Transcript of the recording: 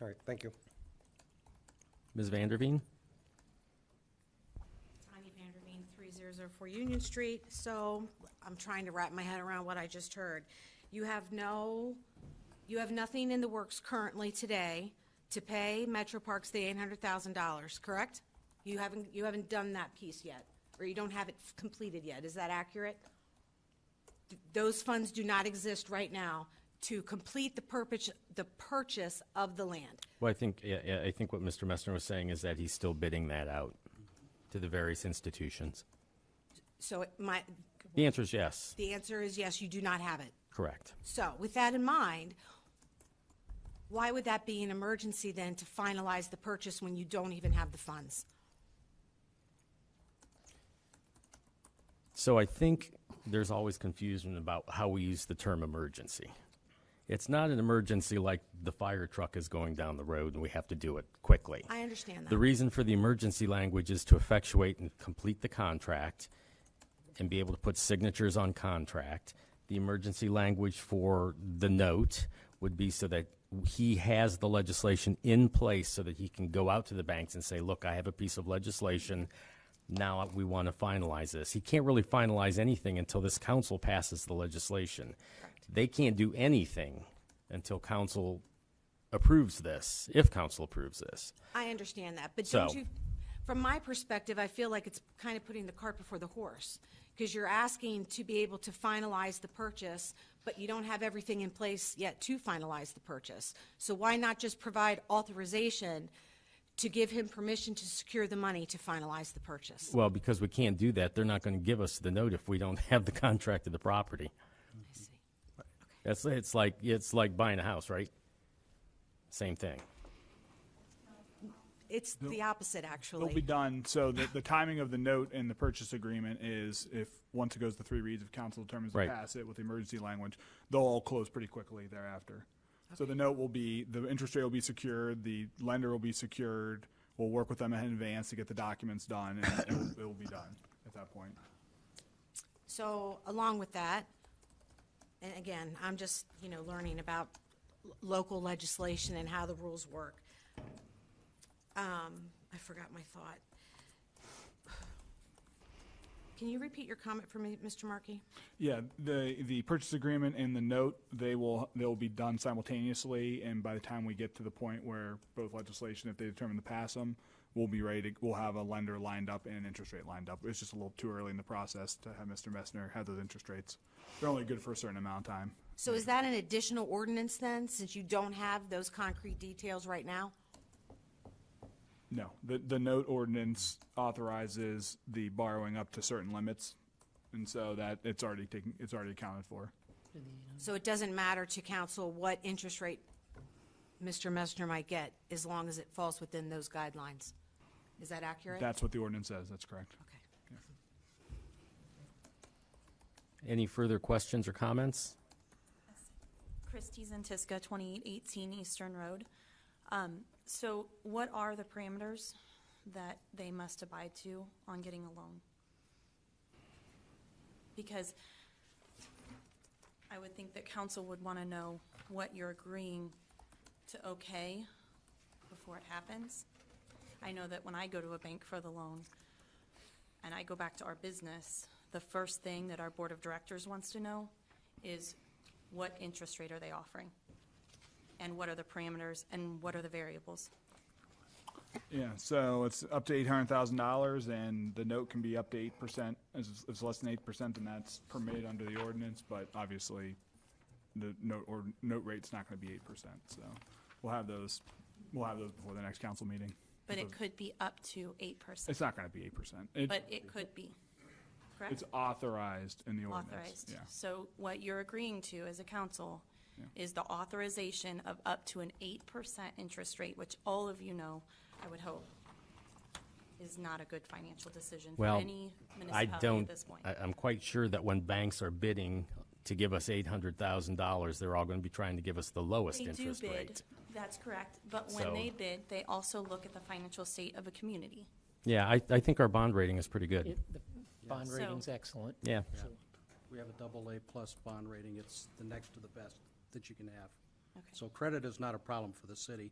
All right, thank you. Ms. Vanderveen? Tanya Vanderveen, 3004 Union Street. So I'm trying to wrap my head around what I just heard. You have no, you have nothing in the works currently today to pay Metro Parks the $800,000, correct? You haven't, you haven't done that piece yet, or you don't have it completed yet. Is that accurate? Th- Those funds do not exist right now to complete the purpose, the purchase of the land. Well, I think, yeah, yeah, I think what Mr. Messner was saying is that he's still bidding that out to the various institutions. So it- my, The answer is yes, the answer is yes, you do not have it. correct. So with that in mind, why would that be an emergency then to finalize the purchase when you don't even have the funds? So I think there's always confusion about how we use the term emergency. It's not an emergency like the fire truck is going down the road and we have to do it quickly. I understand The that. reason for the emergency language is to effectuate and complete the contract and be able to put signatures on contract. The emergency language for the note would be so that he has the legislation in place so that he can go out to the banks and say, look, I have a piece of legislation. Now we want to finalize this. He can't really finalize anything until this council passes the legislation. They can't do anything until council approves this, if council approves this. I understand that, but So- don't you, from my perspective, I feel like it's kind of putting the cart before the horse. Because you're asking to be able to finalize the purchase, but you don't have everything in place yet to finalize the purchase. So why not just provide authorization to give him permission to secure the money to finalize the purchase? Well, because we can't do that, they're not going to give us the note if we don't have the contract of the property. I see. That's, it's like, it's like buying a house, right? Same thing. It's the opposite, actually. It'll be done, so the, the timing of the note and the purchase agreement is if, once it goes to three reads, if council determines to Right. pass it with the emergency language, they'll all close pretty quickly thereafter. So the note will be, the interest rate will be secured, the lender will be secured, we'll work with them in advance to get the documents done, and it'll, it'll be done at that point. So along with that, and again, I'm just, you know, learning about l- local legislation and how the rules work. Um, I forgot my thought. Can you repeat your comment for me, Mr. Markey? Yeah, the, the purchase agreement and the note, they will, they'll be done simultaneously, and by the time we get to the point where both legislation, if they determine to pass them, we'll be ready to, we'll have a lender lined up and an interest rate lined up. It's just a little too early in the process to have Mr. Messner have those interest rates. They're only good for a certain amount of time. So is that an additional ordinance then, since you don't have those concrete details right now? No, the, the note ordinance authorizes the borrowing up to certain limits, and so that, it's already taken, it's already accounted for. So it doesn't matter to council what interest rate Mr. Messner might get, as long as it falls within those guidelines? Is that accurate? That's what the ordinance says, that's correct. Okay. Any further questions or comments? Christie's and Tisca, 2818 Eastern Road. Um, So what are the parameters that they must abide to on getting a loan? Because I would think that council would want to know what you're agreeing to okay before it happens. I know that when I go to a bank for the loan, and I go back to our business, the first thing that our board of directors wants to know is what interest rate are they offering? And what are the parameters and what are the variables? Yeah, so it's up to eight hundred thousand dollars, and the note can be up to eight percent. It's, it's less than eight percent, and that's permitted under the ordinance. But obviously, the note or note rate's not going to be eight percent. So we'll have those. We'll have those before the next council meeting. But it Mm-hmm. could be up to eight percent, It's not going to be eight percent. but it could be, correct? It's authorized in the ordinance. Authorized. Yeah. So what you're agreeing to as a council is the authorization of up to an eight percent interest rate, which all of you know, I would hope, is not a good financial decision for Well, any I municipality at don't, this point. I, I'm quite sure that when banks are bidding to give us eight hundred thousand dollars, they're all going to be trying to give us the lowest They do interest bid, rate. that's correct, but So- when they bid, they also look at the financial state of a community. Yeah, I, I think our bond rating is pretty good. It- The bond So- rating's excellent. Yeah. So We have a double A-plus bond rating. It's the next to the best that you can have. Okay. So credit is not a problem for the city.